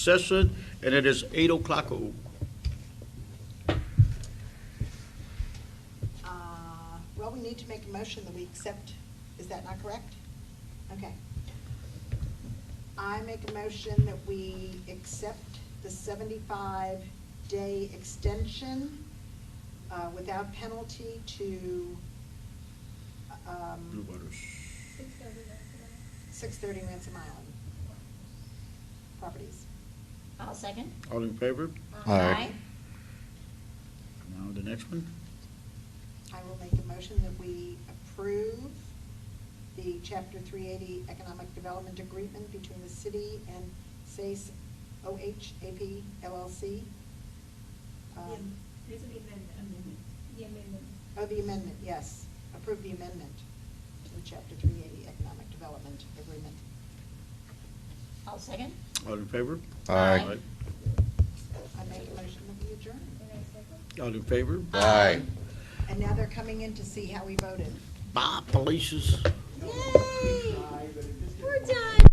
session, and it is eight o'clock. Oh, Uh, Well, we need to make a motion that we accept, is that not correct? Okay. I make a motion that we accept the seventy-five day extension uh, without penalty to Blue Waters. six thirty Ransom Island properties. I'll second. All in favor? Aye. Now the next one. I will make a motion that we approve the Chapter 380 Economic Development Agreement between the city and SACE OHAP LLC. Um, These would be amendment. The amendment. Oh, the amendment, yes. Approve the amendment to the Chapter 380 Economic Development Agreement. I'll second. All in favor? I Aye. make a motion that we adjourn. Can I second? All in favor? Aye. And now they're coming in to see how we voted. Bye, Felicia's.